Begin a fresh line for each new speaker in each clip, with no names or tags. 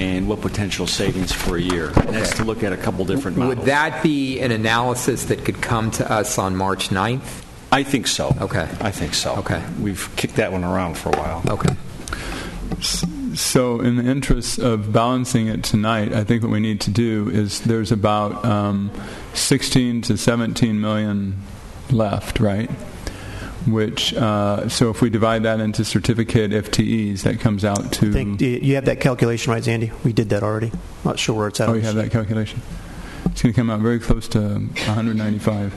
and what potential savings for a year. And that's to look at a couple different models.
Would that be an analysis that could come to us on March 9th?
I think so.
Okay.
I think so.
Okay.
We've kicked that one around for a while.
Okay.
So, in the interest of balancing it tonight, I think what we need to do is there's about um, 16 to 17 million left, right? Which, uh, so if we divide that into certificate FTEs, that comes out to.
I think do you you have that calculation right, Zandy? We did that already. Not sure where it's at.
Oh, you have that calculation. It's going to come out very close to 195,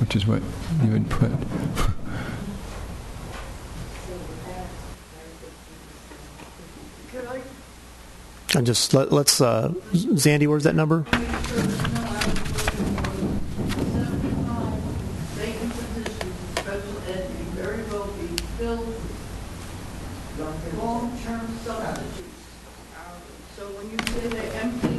which is what you would put.
And just let, let's, uh, Zandy, where's that number?
vacant positions in special ed may very well be filled with long-term substitutes. So when you say they're empty,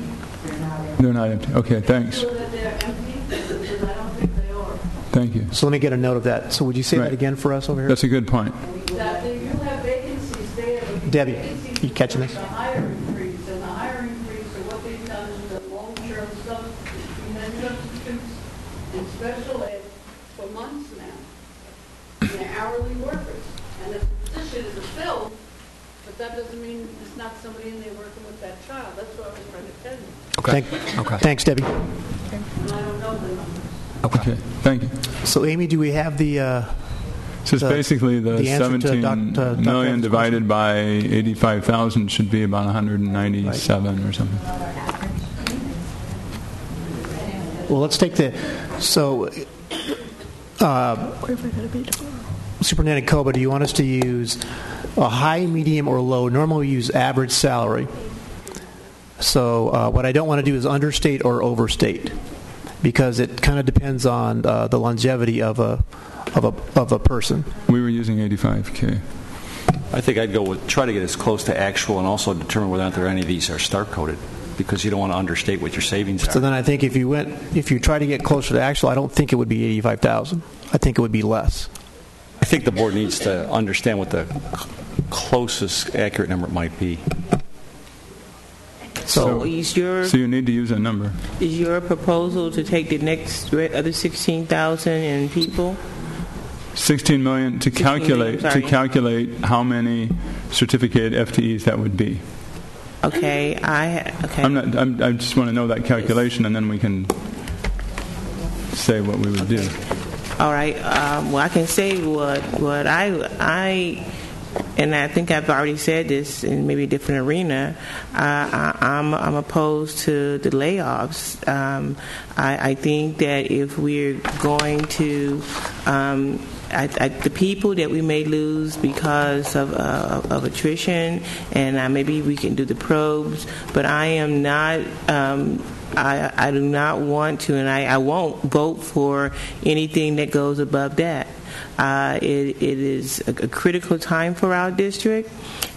They're not empty. Okay, thanks.
feel that they're empty, because I don't think they are.
Thank you.
So let me get a note of that. So would you say
Right.
that again for us over here?
That's a good point.
That they do have vacancies there. but the
Debbie,
vacancies
you catching this?
reflect The hiring freeze, and the hiring freeze, and what they've done is the long-term substitutes, and then substitutes in special ed for months now. And they're hourly workers, and if the position is filled, but that doesn't mean it's not somebody in there working with that child, that's what I was trying to tell you,
Thank- Thanks, Debbie.
and I don't know the numbers.
Okay, thank you.
So, Amy, do we have the, uh,
So it's
The-
basically the
the answer to
17
Doc- to Dr.
million
Evans'
divided by 85,000 should be about 197 or something.
well, let's take the, so, uh, Superintendent Koba, do you want us to use a high, medium, or low? Normally, we use average salary. So uh, what I don't want to do is understate or overstate, because it kind of depends on uh, the longevity of a, of a, of a person.
We were using 85K.
I think I'd go with, try to get as close to actual and also determine whether or not there are any of these are star coded, because you don't want to understate what your savings
So
are.
then I think if you went, if you try to get closer to actual, I don't think it would be 85,000. I think it would be less.
I think the board needs to understand what the c- closest accurate number might be.
So is your,
So you need to use a number.
is your proposal to take the next re- other 16,000 and people?
16 million to
16 million,
calculate, to
sorry.
calculate how many certificate FTEs that would be.
Okay, I, ha- okay.
I'm not, I'm, I just want to know that calculation and then we can say what we would do.
All right. Um, well, I can say what what I I and I think I've already said this in maybe a different arena. Uh, I, I'm I'm opposed to the layoffs. Um, I, I think that if we're going to um, I, I, the people that we may lose because of, uh, of attrition, and uh, maybe we can do the probes. But I am not. Um, I, I do not want to, and I, I won't vote for anything that goes above that. Uh, it, it is a, a critical time for our district,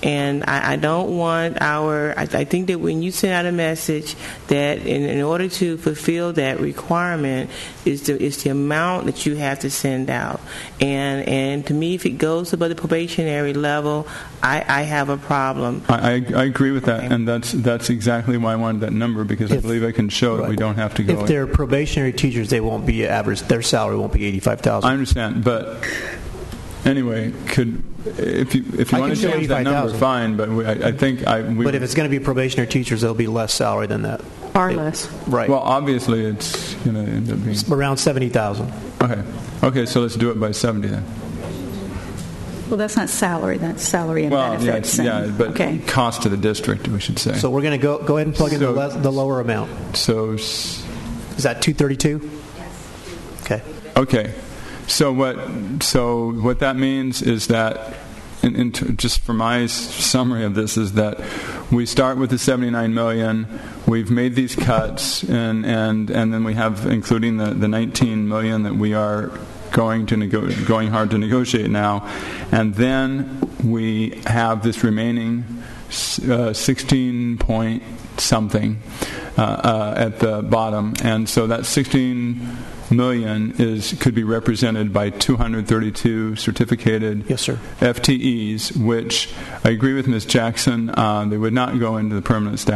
and I, I don't want our. I, I think that when you send out a message that in, in order to fulfill that requirement is the is the amount that you have to send out, and and to me, if it goes above the probationary level, I, I have a problem.
I, I, I agree with that and that's, that's exactly why I wanted that number because I
If-
believe I can show that we don't have to go.
If they're probationary teachers, they won't be average. Their salary won't be eighty-five
I
thousand.
understand, but anyway, could if you if you
I
want
can
to
show
change that number,
85,000.
fine. But we, I, I think I we,
But if it's going to be probationary teachers, there'll be less salary than that.
Far less.
Right.
well, obviously it's going to end up being
Around seventy thousand.
okay. Okay, so let's do it by seventy then.
Well, that's not salary, that's salary and
Well, yeah,
benefits.
it's, yeah,
and-
but
Okay.
cost to the district, we should say.
So
So,
we're going to go, go ahead and plug in the,
So-
less, the lower amount.
s-
Is that two thirty-two? Okay.
okay, so what so what that means is that. In, in, t- just for my s- summary of this is that we start with the 79 million we've made these cuts and, and, and then we have including the, the 19 million that we are going to nego- going hard to negotiate now and then we have this remaining s- uh, 16 point something uh, uh, at the bottom, and so that 16 million is could be represented by 232 certificated
Yes, sir.
FTEs, which I agree with Ms. Jackson, uh, they would not go into the permanent staff.